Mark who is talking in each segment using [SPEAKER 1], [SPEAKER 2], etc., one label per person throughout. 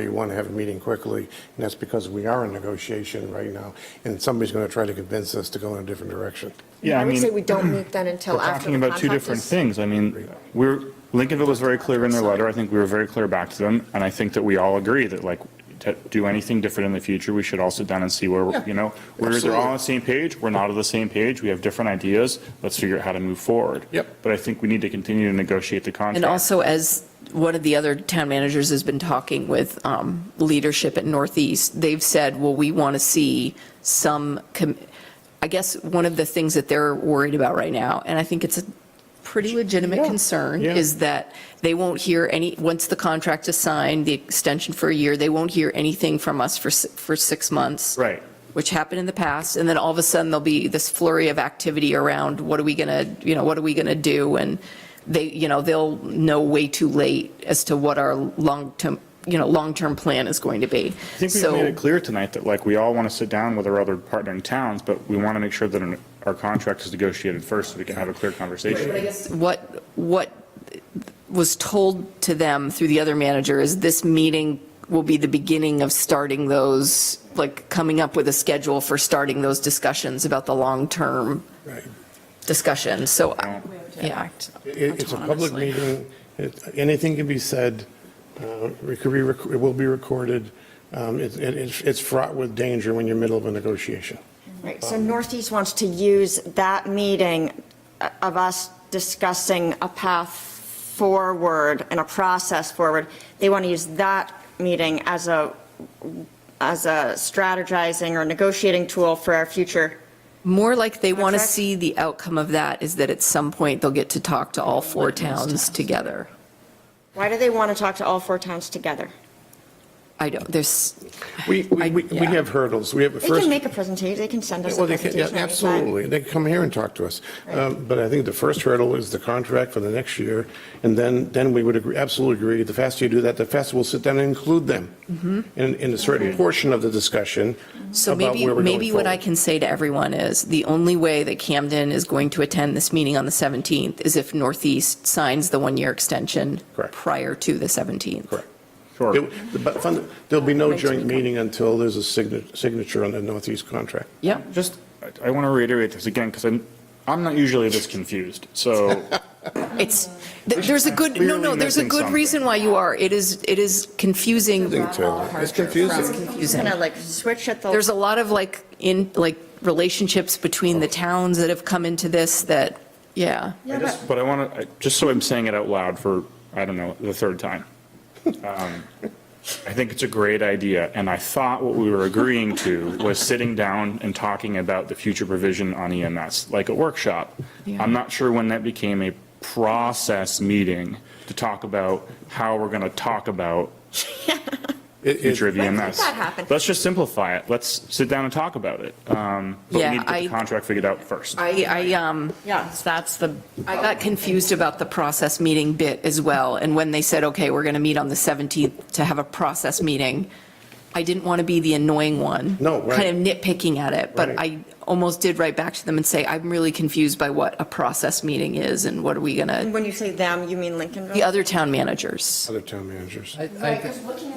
[SPEAKER 1] you want to have a meeting quickly, and that's because we are in negotiation right now, and somebody's going to try to convince us to go in a different direction.
[SPEAKER 2] Yeah, I
[SPEAKER 3] would
[SPEAKER 2] mean,
[SPEAKER 3] say we don't meet then until
[SPEAKER 2] we're
[SPEAKER 3] after
[SPEAKER 2] talking
[SPEAKER 3] the
[SPEAKER 2] about two
[SPEAKER 3] contract
[SPEAKER 2] different
[SPEAKER 3] is.
[SPEAKER 2] things. I mean, we're, Lincolnville was very clear in their letter. I think we were very clear back to them. And I think that we all agree that like, to do anything different in the future, we should all sit down and see where, we're- you know, we're either all on the same page, we're not on the same page, we have different ideas, let's figure out how to move forward.
[SPEAKER 1] Yep.
[SPEAKER 2] But I think we need to continue to negotiate the contract.
[SPEAKER 4] And also, as one of the other town managers has been talking with um, leadership at Northeast, they've said, well, we want to see some, com- I guess, one of the things that they're worried about right now, and I think it's a pretty legitimate concern,
[SPEAKER 2] yeah.
[SPEAKER 4] is that they won't hear any, once the contract is signed, the extension for a year, they won't hear anything from us for, si- for six months
[SPEAKER 2] Right.
[SPEAKER 4] which happened in the past, and then all of a sudden, there'll be this flurry of activity around, what are we going to, you know, what are we going to do? And they, you know, they'll know way too late as to what our long-term, you know, long-term plan is going to be.
[SPEAKER 2] I think we've
[SPEAKER 4] So-
[SPEAKER 2] made it clear tonight that like, we all want to sit down with our other partnering towns, but we want to make sure that our- our contract is negotiated first so we can have a clear conversation.
[SPEAKER 4] But I guess What, what was told to them through the other manager is this meeting will be the beginning of starting those, like, coming up with a schedule for starting those discussions about the long-term
[SPEAKER 1] Right.
[SPEAKER 4] discussion, so, I- yeah.
[SPEAKER 1] It- It's a public
[SPEAKER 4] Autonomously.
[SPEAKER 1] meeting, It- anything can be said, Uh, it could be, rec- it will be recorded. Um, it- it- It's it's fraught with danger when you're middle of a negotiation.
[SPEAKER 3] Right, so Northeast wants to use that meeting uh, of us discussing a path forward and a process forward. They want to use that meeting as a, as a strategizing or negotiating tool for our future.
[SPEAKER 4] More like they want to
[SPEAKER 3] Contract?
[SPEAKER 4] see the outcome of that is that at some point they'll get to talk to all four towns together.
[SPEAKER 3] Why do they want to talk to all four towns together?
[SPEAKER 4] I don't, there's,
[SPEAKER 1] We, we,
[SPEAKER 4] I-
[SPEAKER 1] we we
[SPEAKER 4] yeah.
[SPEAKER 1] have hurdles, we have a
[SPEAKER 3] They
[SPEAKER 1] first.
[SPEAKER 3] can make a presentation, they can send us a
[SPEAKER 1] Well, they can,
[SPEAKER 3] presentation.
[SPEAKER 1] yeah,
[SPEAKER 3] anytime.
[SPEAKER 1] absolutely. They can come here and talk to us. Um, But I think the first hurdle is the contract for the next year, and then, then we would agree- absolutely agree, the faster you do that, the faster we'll sit down and include them in, in a certain portion of the discussion
[SPEAKER 4] Mm-hmm. so
[SPEAKER 1] about
[SPEAKER 4] maybe,
[SPEAKER 1] where we're
[SPEAKER 4] maybe
[SPEAKER 1] going
[SPEAKER 4] what I
[SPEAKER 1] forward.
[SPEAKER 4] can say to everyone is, the only way that Camden is going to attend this meeting on the 17th is if Northeast signs the one-year extension
[SPEAKER 1] Correct.
[SPEAKER 4] prior to the 17th.
[SPEAKER 1] Correct.
[SPEAKER 2] Sure.
[SPEAKER 1] It- But fun- there'll be no joint meeting until there's a signa- signature on the Northeast contract.
[SPEAKER 4] Yep.
[SPEAKER 2] Just, I- I want to reiterate this again, because I'm, I'm not usually this confused, so.
[SPEAKER 4] It's, th- there's a good, no, no,
[SPEAKER 2] Clearly
[SPEAKER 4] there's a
[SPEAKER 2] missing
[SPEAKER 4] good
[SPEAKER 2] something.
[SPEAKER 4] reason why you are. It is, it is confusing.
[SPEAKER 1] It's
[SPEAKER 4] It's
[SPEAKER 1] confusing.
[SPEAKER 4] confusing.
[SPEAKER 3] Kind of like switch at the.
[SPEAKER 4] There's a lot of like, in, like, relationships between the towns that have come into this that, yeah.
[SPEAKER 3] Yeah, but-
[SPEAKER 2] But I want to, just so I'm saying it out loud for, I don't know, the third time. Um, I think it's a great idea, and I thought what we were agreeing to was sitting down and talking about the future provision on EMS, like a workshop.
[SPEAKER 4] Yeah.
[SPEAKER 2] I'm not sure when that became a process meeting to talk about how we're going to talk about
[SPEAKER 1] It- it-
[SPEAKER 2] future of
[SPEAKER 3] When did
[SPEAKER 2] EMS.
[SPEAKER 3] that happen?
[SPEAKER 2] Let's just simplify it. Let's sit down and talk about it. Um, But we
[SPEAKER 4] Yeah,
[SPEAKER 2] need to get the
[SPEAKER 4] I-
[SPEAKER 2] contract figured out first.
[SPEAKER 4] I, I, um,
[SPEAKER 3] Yeah.
[SPEAKER 4] that's the, I got confused about the process meeting bit as well. And when they said, okay, we're going to meet on the 17th to have a process meeting, I didn't want to be the annoying one.
[SPEAKER 1] No, right.
[SPEAKER 4] Kind of nitpicking at it, but
[SPEAKER 1] Right.
[SPEAKER 4] I almost did write back to them and say, I'm really confused by what a process meeting is and what are we going to,
[SPEAKER 3] When you say them, you mean Lincolnville?
[SPEAKER 4] the other town managers.
[SPEAKER 1] Other town managers.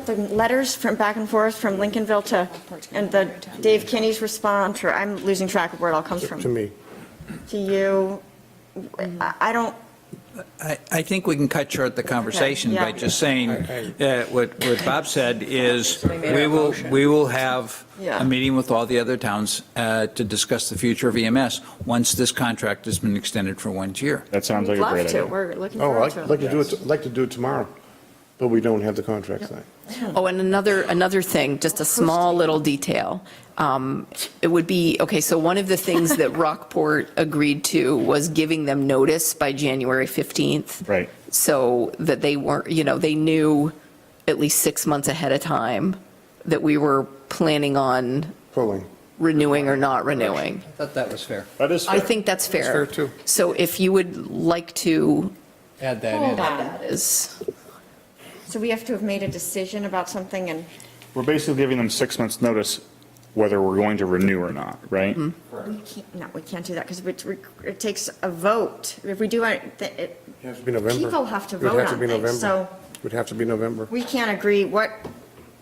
[SPEAKER 3] The letters from back and forth from Lincolnville to, and the Dave Kinney's response, or I'm losing track of where it all comes
[SPEAKER 1] To
[SPEAKER 3] from,
[SPEAKER 1] me,
[SPEAKER 3] to you. I I don't,
[SPEAKER 5] I, I think we can cut short the conversation
[SPEAKER 3] Okay,
[SPEAKER 5] by
[SPEAKER 3] yeah.
[SPEAKER 5] just saying
[SPEAKER 1] I-
[SPEAKER 5] that what, what Bob said is, we will, we will have
[SPEAKER 3] Yeah.
[SPEAKER 5] a meeting with all the other towns uh, to discuss the future of EMS, once this contract has been extended for one year.
[SPEAKER 2] That sounds
[SPEAKER 3] we'd
[SPEAKER 2] like a great
[SPEAKER 3] love
[SPEAKER 2] idea.
[SPEAKER 3] to, we're looking
[SPEAKER 1] oh,
[SPEAKER 3] forward
[SPEAKER 1] I'd like
[SPEAKER 3] to
[SPEAKER 1] to
[SPEAKER 3] it.
[SPEAKER 1] do it, like to do it tomorrow, but we don't have the contract signed.
[SPEAKER 4] Oh, and another, another thing, just a small little detail. Um, It would be, okay, so one of the things that Rockport agreed to was giving them notice by January 15th.
[SPEAKER 2] Right.
[SPEAKER 4] So that they weren't, you know, they knew at least six months ahead of time that we were planning on
[SPEAKER 1] Pulling.
[SPEAKER 4] renewing or not renewing.
[SPEAKER 5] I thought that was fair.
[SPEAKER 2] That is
[SPEAKER 4] I
[SPEAKER 2] fair.
[SPEAKER 4] think that's fair.
[SPEAKER 1] fair, too.
[SPEAKER 4] So if you would like to,
[SPEAKER 5] Add
[SPEAKER 3] Hold
[SPEAKER 5] that
[SPEAKER 3] on.
[SPEAKER 4] is,
[SPEAKER 3] So we have to have made a decision about something and,
[SPEAKER 2] We're basically giving them six months' notice whether we're going to renew or not, right?
[SPEAKER 3] Mm-hmm. we can't, no, we can't do that because it takes a vote. If we do, it, th- it-
[SPEAKER 1] It has to be November.
[SPEAKER 3] People have to
[SPEAKER 1] It would
[SPEAKER 3] vote
[SPEAKER 1] to
[SPEAKER 3] on
[SPEAKER 1] be
[SPEAKER 3] things,
[SPEAKER 1] November.
[SPEAKER 3] so-
[SPEAKER 1] It would have to be November.
[SPEAKER 3] we can't agree what